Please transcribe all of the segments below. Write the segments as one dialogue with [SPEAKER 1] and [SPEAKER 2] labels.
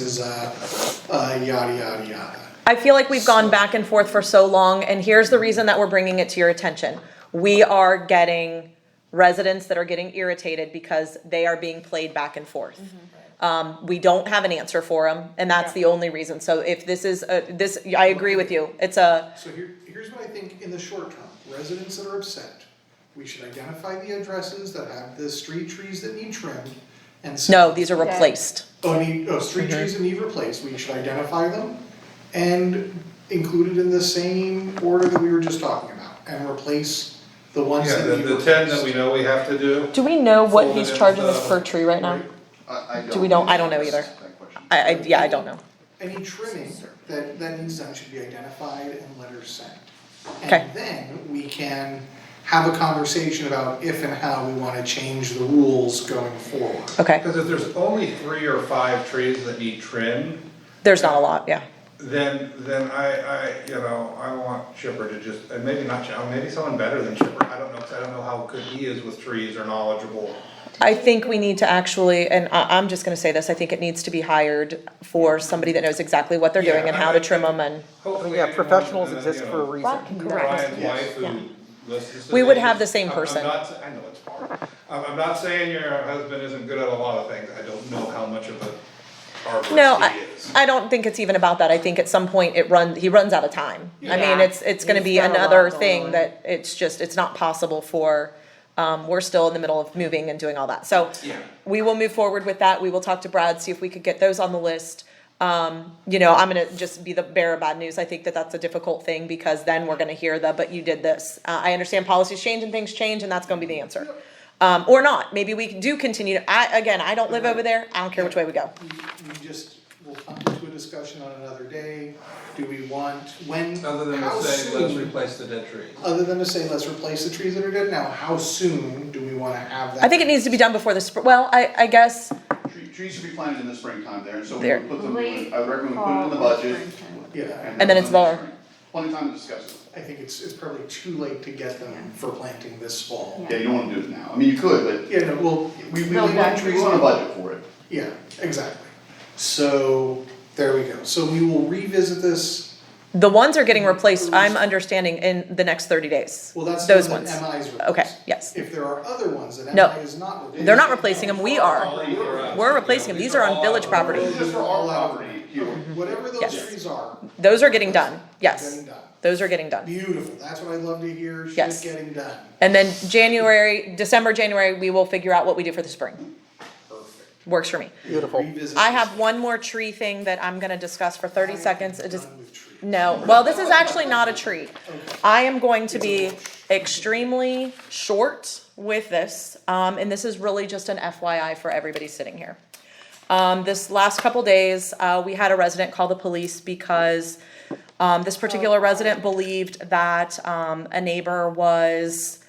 [SPEAKER 1] is, uh, uh, yada, yada, yada.
[SPEAKER 2] I feel like we've gone back and forth for so long, and here's the reason that we're bringing it to your attention. We are getting residents that are getting irritated because they are being played back and forth. Um, we don't have an answer for them, and that's the only reason. So if this is, a- this, I agree with you, it's a,
[SPEAKER 1] So here, here's what I think in the short term, residents that are upset, we should identify the addresses that have the street trees that need trimmed and. s-
[SPEAKER 2] no, these are replaced.
[SPEAKER 1] Oh, need, oh, street trees that need replaced, we should identify them and include it in the same order that we were just talking about and replace the ones
[SPEAKER 3] Yeah,
[SPEAKER 1] that
[SPEAKER 3] the,
[SPEAKER 1] need
[SPEAKER 3] the
[SPEAKER 1] replaced.
[SPEAKER 3] ten that we know we have to do,
[SPEAKER 2] Do we know
[SPEAKER 3] what he's charging us per
[SPEAKER 2] tree right now?
[SPEAKER 4] I, I don't.
[SPEAKER 2] we don't- I don't know either.
[SPEAKER 4] That question.
[SPEAKER 2] I, I, yeah, I don't know.
[SPEAKER 1] Any trimming that, that needs done should be identified and letters sent.
[SPEAKER 2] Okay.
[SPEAKER 1] And then we can have a conversation about if and how we wanna change the rules going forward.
[SPEAKER 2] Okay,
[SPEAKER 3] because if there's only three or five trees that need trim,
[SPEAKER 2] there's not a lot, yeah.
[SPEAKER 3] then, then I, I, you know, I want Chipper to just, and maybe not, Chipper, maybe someone better than Chipper, I don't know, cause I don't know how good he is with trees or knowledgeable.
[SPEAKER 2] I think we need to actually, and I, I'm just gonna say this, I think it needs to be hired for somebody that knows exactly what they're doing
[SPEAKER 3] Yeah,
[SPEAKER 2] and
[SPEAKER 3] I-
[SPEAKER 2] how to
[SPEAKER 3] I
[SPEAKER 2] trim
[SPEAKER 3] think-
[SPEAKER 2] them and.
[SPEAKER 3] Hopefully,
[SPEAKER 5] Yeah,
[SPEAKER 3] anyone-
[SPEAKER 5] professionals
[SPEAKER 3] and then,
[SPEAKER 5] exist
[SPEAKER 3] you
[SPEAKER 5] for a
[SPEAKER 3] know,
[SPEAKER 5] reason.
[SPEAKER 2] Correct.
[SPEAKER 3] Brian's wife
[SPEAKER 2] Yeah.
[SPEAKER 3] who listens to
[SPEAKER 2] We would
[SPEAKER 3] these-
[SPEAKER 2] have the same
[SPEAKER 3] I'm-
[SPEAKER 2] person.
[SPEAKER 3] I'm not, sa- I know it's hard. I'm, I'm not saying your husband isn't good at a lot of things, I don't know how much of a
[SPEAKER 2] No,
[SPEAKER 3] arborist he
[SPEAKER 2] I,
[SPEAKER 3] is.
[SPEAKER 2] I don't think it's even about that, I think at some point it run, he runs out of time. I mean,
[SPEAKER 6] Yeah.
[SPEAKER 2] it's, it's gonna
[SPEAKER 6] He's
[SPEAKER 2] be
[SPEAKER 6] got a lot
[SPEAKER 2] another
[SPEAKER 6] going
[SPEAKER 2] thing
[SPEAKER 6] on.
[SPEAKER 2] that, it's just, it's not possible for, um, we're still in the middle of moving and doing all that, so.
[SPEAKER 3] Yeah.
[SPEAKER 2] We will move forward with that, we will talk to Brad, see if we could get those on the list. Um, you know, I'm gonna just be the bearer of bad news, I think that that's a difficult thing, because then we're gonna hear the, but you did this. Uh, I understand policies change and things change, and that's gonna be the answer. Um, or not, maybe we do continue, to- I, again, I don't live over there, I don't care which way we go.
[SPEAKER 1] We we just, we'll come to a discussion on another day, do we want, when,
[SPEAKER 3] Other than
[SPEAKER 1] how
[SPEAKER 3] to say, let's
[SPEAKER 1] soon?
[SPEAKER 3] replace the dead trees.
[SPEAKER 1] Other than to say, let's replace the trees that are dead now, how soon do we wanna have that?
[SPEAKER 2] I think it needs to be done before the spring, well, I, I guess,
[SPEAKER 4] Tree- Trees should be planted in the springtime there, and so we
[SPEAKER 2] There.
[SPEAKER 4] would put them, I would recommend we put them
[SPEAKER 6] Fall,
[SPEAKER 4] in the budget.
[SPEAKER 6] springtime.
[SPEAKER 1] Yeah,
[SPEAKER 2] And then it's there.
[SPEAKER 4] Plenty of time to discuss it.
[SPEAKER 1] I think it's, it's probably too late to get them for planting this fall.
[SPEAKER 4] Yeah, you don't wanna do it now. I mean, you could,
[SPEAKER 1] Yeah, no, well, we, we
[SPEAKER 6] No,
[SPEAKER 1] want
[SPEAKER 6] that-
[SPEAKER 4] but we
[SPEAKER 1] trees
[SPEAKER 4] want
[SPEAKER 1] on
[SPEAKER 4] a budget for it.
[SPEAKER 1] Yeah, exactly. So, there we go. So we will revisit this,
[SPEAKER 2] the ones are getting replaced, I'm understanding, in the next thirty days.
[SPEAKER 1] well, that's the
[SPEAKER 2] Those
[SPEAKER 1] one
[SPEAKER 2] ones.
[SPEAKER 1] that MI's replaced.
[SPEAKER 2] Okay, yes.
[SPEAKER 1] If there are other ones that
[SPEAKER 2] No.
[SPEAKER 1] MI is not replacing.
[SPEAKER 2] They're not replacing them, we are.
[SPEAKER 3] We're
[SPEAKER 2] We're replacing them, these are on village property.
[SPEAKER 4] This is just for our property here.
[SPEAKER 1] Whatever those
[SPEAKER 2] Yes.
[SPEAKER 1] trees are,
[SPEAKER 2] Those are getting done, yes.
[SPEAKER 1] getting done.
[SPEAKER 2] Those are getting done.
[SPEAKER 1] Beautiful, that's what I love to hear, shit
[SPEAKER 2] Yes.
[SPEAKER 1] getting done.
[SPEAKER 2] And then January, December, January, we will figure out what we do for the spring. Works for me.
[SPEAKER 5] Beautiful.
[SPEAKER 1] Revisit
[SPEAKER 2] I
[SPEAKER 1] this.
[SPEAKER 2] have one more tree thing that I'm gonna discuss for thirty seconds, it just,
[SPEAKER 1] Done with trees.
[SPEAKER 2] No, well, this is actually not a treat. I am going to be extremely short with this, um, and this is really just an FYI for everybody sitting here. Um, this last couple days, uh, we had a resident call the police because, um, this particular resident believed that, um, a neighbor was,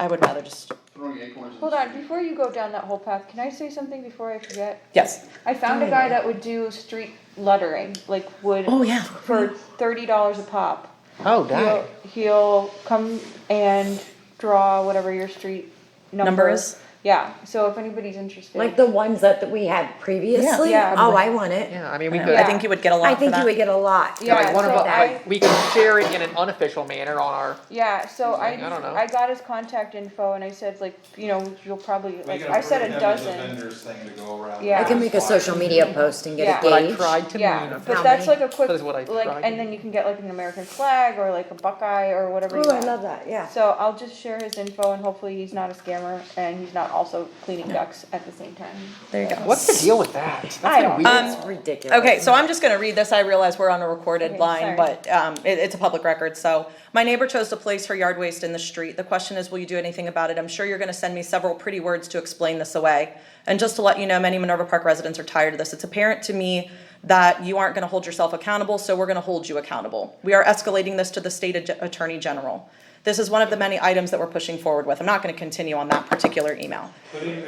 [SPEAKER 2] I would rather just,
[SPEAKER 4] Throwing acorns in the
[SPEAKER 7] Hold on,
[SPEAKER 4] street.
[SPEAKER 7] before you go down that whole path, can I say something before I forget?
[SPEAKER 2] yes.
[SPEAKER 7] I found a guy that would do street lettering, like would
[SPEAKER 2] Oh, yeah.
[SPEAKER 7] for thirty dollars a pop.
[SPEAKER 5] Oh, dang.
[SPEAKER 7] He'll, he'll come and draw whatever your street number.
[SPEAKER 2] Number is?
[SPEAKER 7] Yeah, so if anybody's interested.
[SPEAKER 6] Like the ones that, that we had previously?
[SPEAKER 7] Yeah.
[SPEAKER 6] Oh, I want it.
[SPEAKER 5] Yeah, I mean, we could,
[SPEAKER 2] I think you would get a lot
[SPEAKER 6] I
[SPEAKER 2] for
[SPEAKER 6] think you
[SPEAKER 2] that.
[SPEAKER 6] would get a lot.
[SPEAKER 7] Yeah,
[SPEAKER 5] like one of,
[SPEAKER 7] so
[SPEAKER 5] us-
[SPEAKER 7] I-
[SPEAKER 5] like, we could share it in an unofficial manner on our,
[SPEAKER 7] Yeah, so I,
[SPEAKER 5] Like, I don't know.
[SPEAKER 7] I got his contact info and I said like, you know, you'll probably, like,
[SPEAKER 3] Make it
[SPEAKER 7] I said a
[SPEAKER 3] program as
[SPEAKER 7] dozen.
[SPEAKER 3] vendors thing to go around.
[SPEAKER 7] Yeah.
[SPEAKER 6] I can make a social media post and get a
[SPEAKER 7] Yeah.
[SPEAKER 5] what I
[SPEAKER 6] gauge.
[SPEAKER 5] tried to
[SPEAKER 7] Yeah,
[SPEAKER 5] mean.
[SPEAKER 7] but
[SPEAKER 6] How
[SPEAKER 7] that's like
[SPEAKER 6] many?
[SPEAKER 7] a quick,
[SPEAKER 5] That is what I
[SPEAKER 7] like,
[SPEAKER 5] tried.
[SPEAKER 7] and then you can get like an American flag or like a Buckeye or whatever you
[SPEAKER 6] Ooh, I
[SPEAKER 7] want.
[SPEAKER 6] love that, yeah.
[SPEAKER 7] So I'll just share his info and hopefully he's not a scammer and he's not also cleaning ducks at the same time.
[SPEAKER 2] There you go.
[SPEAKER 5] What's the deal with that? That's
[SPEAKER 7] I don't-
[SPEAKER 5] been weird.
[SPEAKER 6] It's ridiculous.
[SPEAKER 2] Okay, so I'm just gonna read this, I realize we're on a recorded
[SPEAKER 7] Okay,
[SPEAKER 2] line,
[SPEAKER 7] sorry.
[SPEAKER 2] but, um, it, it's a public record, so. My neighbor chose to place her yard waste in the street, the question is, will you do anything about it? I'm sure you're gonna send me several pretty words to explain this away. And just to let you know, many Minerva Park residents are tired of this, it's apparent to me that you aren't gonna hold yourself accountable, so we're gonna hold you accountable. We are escalating this to the state Ag- attorney general. This is one of the many items that we're pushing forward with, I'm not gonna continue on that particular email.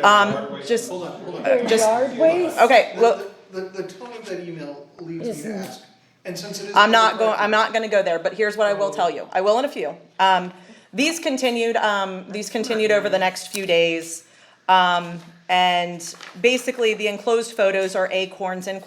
[SPEAKER 2] Um, just,
[SPEAKER 1] Hold on, hold on.
[SPEAKER 2] just,
[SPEAKER 6] Yard waste?
[SPEAKER 2] okay,
[SPEAKER 1] The-
[SPEAKER 2] well.
[SPEAKER 1] The, the, the tone of that email leaves me to ask, and since it is.
[SPEAKER 2] I'm not going, I'm not gonna go there, but here's what I will tell you, I will in a few. Um, these continued, um, these continued over the next few days. Um, And basically, the enclosed photos are acorns in